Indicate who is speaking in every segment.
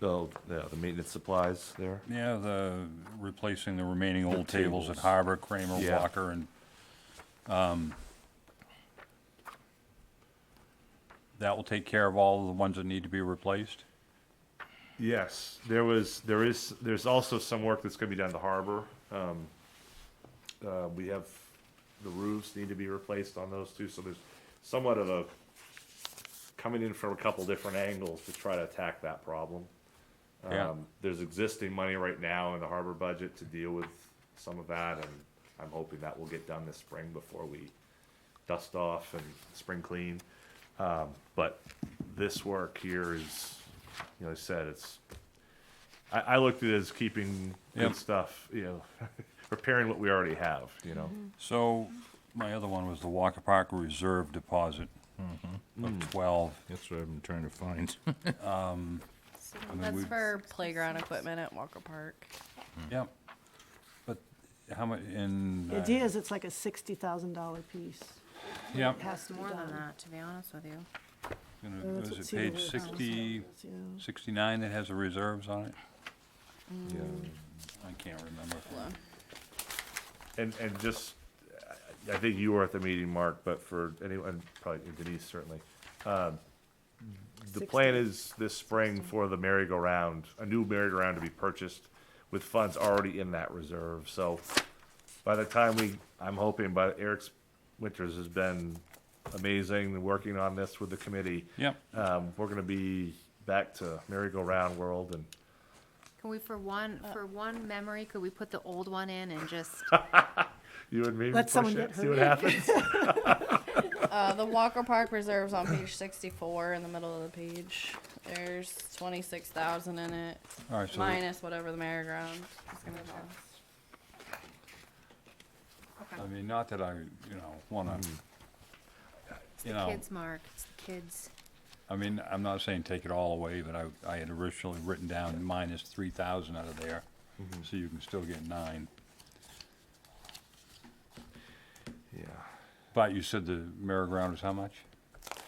Speaker 1: the, yeah, the maintenance supplies there.
Speaker 2: Yeah, the, replacing the remaining
Speaker 1: The
Speaker 2: old tables at
Speaker 1: tables.
Speaker 2: Harbor, Kramer,
Speaker 1: Yeah.
Speaker 2: Walker, and, um, that will take care of all of the ones that need to be replaced?
Speaker 1: Yes, there was, there is, there's also some work that's gonna be done at the harbor. Um, uh, we have, the roofs need to be replaced on those too, so there's somewhat of a coming in from a couple different angles to try to attack that problem.
Speaker 2: Yeah.
Speaker 1: Um, there's existing money right now in the harbor budget to deal with some of that, and I'm hoping that will get done this spring before we dust off and spring clean. Um, but this work here is, you know, I said, it's, I, I looked at it as keeping
Speaker 2: Yep.
Speaker 1: good stuff, you know, repairing what we already have, you know?
Speaker 2: Mm-hmm. So, my other one was the Walker Park Reserve Deposit
Speaker 1: Mm-hmm. Mm.
Speaker 2: of twelve.
Speaker 3: That's what I've been trying to find.
Speaker 4: That's
Speaker 2: we-
Speaker 4: for playground equipment at Walker Park.
Speaker 1: Mm.
Speaker 2: Yep. But how much, in? uh,
Speaker 5: It is, it's like a sixty thousand dollar piece.
Speaker 2: Yep.
Speaker 5: It has to be
Speaker 4: More than
Speaker 5: done.
Speaker 4: that, to be honest with you.
Speaker 2: And
Speaker 5: Uh,
Speaker 2: it-
Speaker 5: that's what
Speaker 2: Was it
Speaker 5: Cedar
Speaker 2: page
Speaker 5: Woods
Speaker 2: sixty,
Speaker 5: is, yeah.
Speaker 2: sixty-nine that has the reserves on it? I can't remember.
Speaker 1: And, and just, I I think you were at the meeting, Mark, but for anyone, probably Denise certainly. um, The plan is this spring for the merry-go-round, a new merry-go-round to be purchased with funds already in that reserve, so by the time we, I'm hoping, by Eric's Winters has been amazing, working on this with the committee.
Speaker 2: Yep,
Speaker 1: Um, we're gonna be back to merry-go-round world and
Speaker 6: Can we, for one,
Speaker 5: Uh.
Speaker 6: for one memory, could we put the old one in and just,
Speaker 1: you and me
Speaker 5: Let
Speaker 1: push
Speaker 5: someone
Speaker 1: it,
Speaker 5: get
Speaker 1: see what
Speaker 5: hurt.
Speaker 1: happens.
Speaker 4: Uh, the Walker Park Reserve's on page sixty-four in the middle of the page. There's twenty-six thousand in it,
Speaker 2: all right, so, I
Speaker 4: minus whatever the merry-go-round is gonna cost.
Speaker 2: mean, not that I, you know, wanna,
Speaker 6: it's
Speaker 2: you
Speaker 6: the
Speaker 2: know,
Speaker 6: kids, Mark, it's the kids.
Speaker 2: I mean, I'm not saying take it all away, but I, I had originally written down minus three thousand out of there, so you can still get nine.
Speaker 1: Yeah,
Speaker 2: But you said the merry-go-round was how much?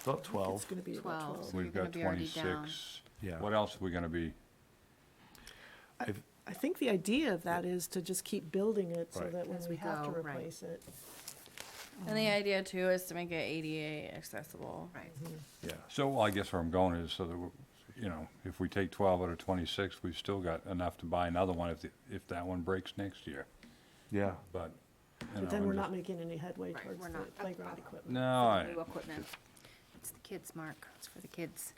Speaker 1: about twelve.
Speaker 5: It's gonna be about
Speaker 6: Twelve.
Speaker 5: twelve.
Speaker 6: So you're
Speaker 2: We've
Speaker 6: gonna
Speaker 2: got
Speaker 6: be already down.
Speaker 2: twenty-six.
Speaker 1: Yeah.
Speaker 2: What else are we gonna be?
Speaker 5: I think the idea of that is to just keep building it so
Speaker 1: Right.
Speaker 5: that when
Speaker 6: As
Speaker 5: we
Speaker 6: we
Speaker 5: have to
Speaker 6: go, right.
Speaker 5: replace it.
Speaker 4: And the idea too is to make it ADA accessible.
Speaker 6: Right.
Speaker 1: Yeah.
Speaker 2: So I guess where I'm going is so that, we're- you know, if we take twelve out of twenty-six, we've still got enough to buy another one if, the- if that one breaks next year.
Speaker 1: Yeah.
Speaker 2: But, you know,
Speaker 5: But then
Speaker 2: I'm
Speaker 5: we're
Speaker 2: just-
Speaker 5: not making any headway
Speaker 6: Right,
Speaker 5: towards
Speaker 6: we're
Speaker 5: the
Speaker 6: not.
Speaker 5: playground equipment.
Speaker 2: No,
Speaker 6: the
Speaker 2: I-
Speaker 6: New equipment. It's the kids, Mark, it's for the kids.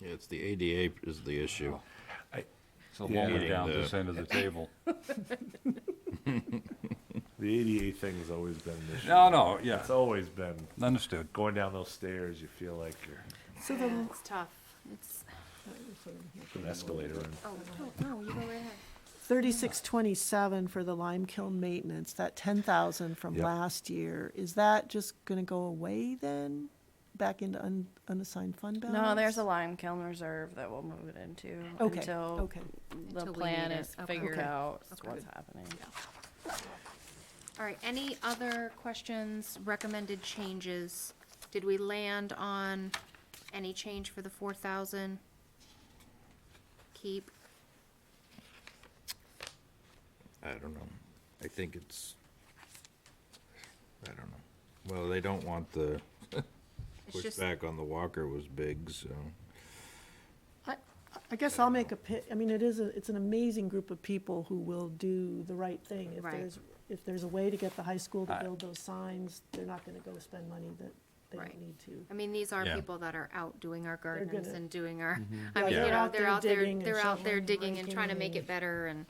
Speaker 3: Yeah, it's the ADA is the issue.
Speaker 2: it's a longer
Speaker 3: Yeah.
Speaker 2: down
Speaker 3: Yeah.
Speaker 2: this end of the table.
Speaker 1: The ADA thing's always been an issue.
Speaker 2: No, no, yeah,
Speaker 1: It's always been
Speaker 2: understood.
Speaker 1: going down those stairs, you feel like you're
Speaker 5: So the,
Speaker 6: Yeah, It's tough, it's,
Speaker 1: an escalator. And
Speaker 6: oh, no, no, you go right ahead.
Speaker 5: thirty-six twenty-seven for the lime kiln maintenance, that ten thousand from
Speaker 1: Yep.
Speaker 5: last year, is that just gonna go away then? Back into un- unassigned fund balance?
Speaker 4: No, there's a lime kiln reserve that we'll move it into
Speaker 5: Okay,
Speaker 4: until
Speaker 5: okay.
Speaker 4: the
Speaker 6: Until we
Speaker 4: plan
Speaker 6: need it.
Speaker 4: is
Speaker 6: Okay.
Speaker 4: figured
Speaker 5: Okay.
Speaker 4: out,
Speaker 6: Okay.
Speaker 4: what's happening.
Speaker 6: All right, any other questions, recommended changes? Did we land on any change for the four thousand? Keep,
Speaker 3: I don't know. I think it's, I don't know. Well, they don't want the
Speaker 6: it's just,
Speaker 3: pushback on the Walker was big, so.
Speaker 5: I, I guess I'll make a pi, I mean, it is, a it's an amazing group of people who will do the right thing. If
Speaker 6: Right.
Speaker 5: there's, if there's a way to get the high school to
Speaker 2: I-
Speaker 5: build those signs, they're not gonna go spend money that they
Speaker 6: Right.
Speaker 5: don't need to.
Speaker 6: I mean, these are
Speaker 3: Yeah.
Speaker 6: people that are out doing our gardens
Speaker 5: gonna-
Speaker 6: and doing our,
Speaker 5: Yeah,
Speaker 6: I mean, you
Speaker 5: they're
Speaker 6: know,
Speaker 5: out
Speaker 6: they're
Speaker 5: there
Speaker 6: out there,
Speaker 5: digging and
Speaker 6: they're out there
Speaker 5: shoveling,
Speaker 6: digging and trying to make
Speaker 5: raking
Speaker 6: it better and,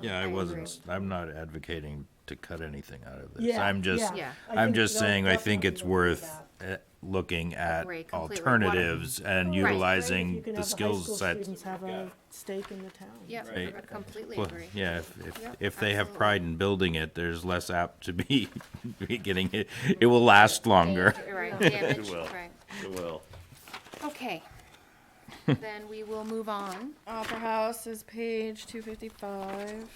Speaker 3: Yeah,
Speaker 6: I
Speaker 3: I
Speaker 6: agree.
Speaker 3: wasn't, I'm not advocating to cut anything out of this.
Speaker 5: Yeah,
Speaker 3: I'm just,
Speaker 6: Yeah.
Speaker 5: I
Speaker 3: I'm
Speaker 5: think
Speaker 3: just
Speaker 5: they'll
Speaker 3: saying, I think
Speaker 5: definitely
Speaker 3: it's
Speaker 5: look at
Speaker 3: worth
Speaker 5: that.
Speaker 3: eh, looking at
Speaker 6: Agree completely. What-
Speaker 3: alternatives and
Speaker 6: Right.
Speaker 3: utilizing
Speaker 5: You can
Speaker 3: the
Speaker 5: have high
Speaker 3: skill
Speaker 5: school
Speaker 3: sets.
Speaker 5: Students have a stake in the town.
Speaker 6: yeah,
Speaker 3: Right.
Speaker 6: I completely
Speaker 3: Well,
Speaker 6: agree.
Speaker 3: yeah, if, if,
Speaker 6: Yep,
Speaker 3: if they have
Speaker 6: absolutely.
Speaker 3: pride in building it, there's less apt to be, be getting it, it will last longer.
Speaker 6: You're Right, damage,
Speaker 1: will.
Speaker 6: right.
Speaker 1: it will.
Speaker 6: Okay. Then we will move on.
Speaker 4: Opera House is page two fifty-five.